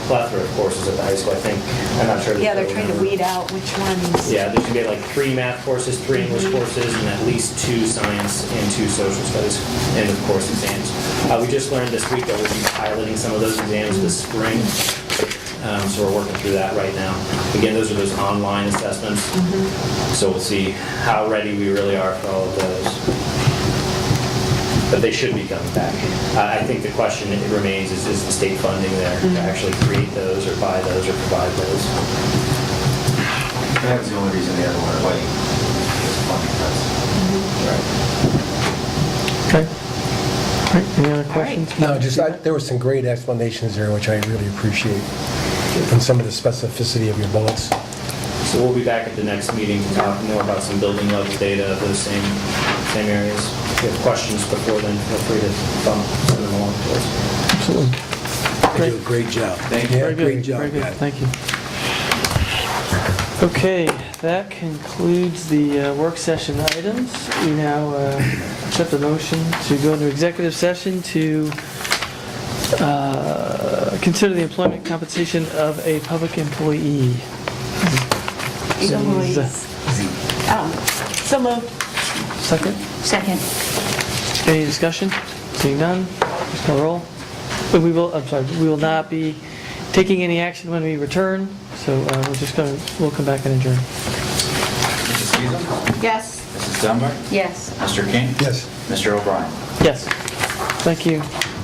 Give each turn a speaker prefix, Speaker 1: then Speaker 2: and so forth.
Speaker 1: plethora of courses at the high school, I think. I'm not sure. of the
Speaker 2: Yeah, they're
Speaker 1: total
Speaker 2: trying to
Speaker 1: number.
Speaker 2: weed out which ones.
Speaker 1: Yeah, there should be like three math courses, three English courses, and at least two science and two social studies, and of course, exams. Uh, We just learned this week that we'll be piloting some of those exams this spring, Um, so we're working through that right now. Again, those are those online assessments, so we'll see how ready we really are for all of those. But they should be coming back. Uh, I I think the question that remains is, is the state funding there to actually create those, or buy those, or provide those?
Speaker 3: That was the only reason the other one went away, was funding cuts.
Speaker 4: Okay. All right, any other
Speaker 2: All right.
Speaker 4: questions?
Speaker 5: No, just, I- there were some great explanations there, which I really appreciate, and some of the specificity of your bullets.
Speaker 1: So we'll be back at the next meeting to talk more about some building level data of those same, same areas. If you have questions before then, feel free to bump, send them along to us.
Speaker 4: Absolutely.
Speaker 6: You do a great job.
Speaker 3: Thank you.
Speaker 6: Yeah,
Speaker 4: Very good,
Speaker 6: Great job,
Speaker 4: very good.
Speaker 6: guys.
Speaker 4: Thank you. Okay, that concludes the uh, work session items. We now uh, accept the motion to go into executive session to uh, consider the employment compensation of a public employee.
Speaker 2: So
Speaker 4: So
Speaker 2: moved.
Speaker 4: moved.
Speaker 2: Oh, So moved.
Speaker 4: Second,
Speaker 2: Second.
Speaker 4: any discussion? Seeing none, just call roll. But we will, I'm sorry, we will not be taking any action when we return, so uh, we're just going, to we'll come back and adjourn.
Speaker 3: Mrs. Feasel?
Speaker 2: Yes.
Speaker 3: Mrs. Dunbar?
Speaker 2: Yes.
Speaker 3: Mr. King?
Speaker 5: Yes?
Speaker 3: Mr. O'Brien?
Speaker 4: Yes, thank you.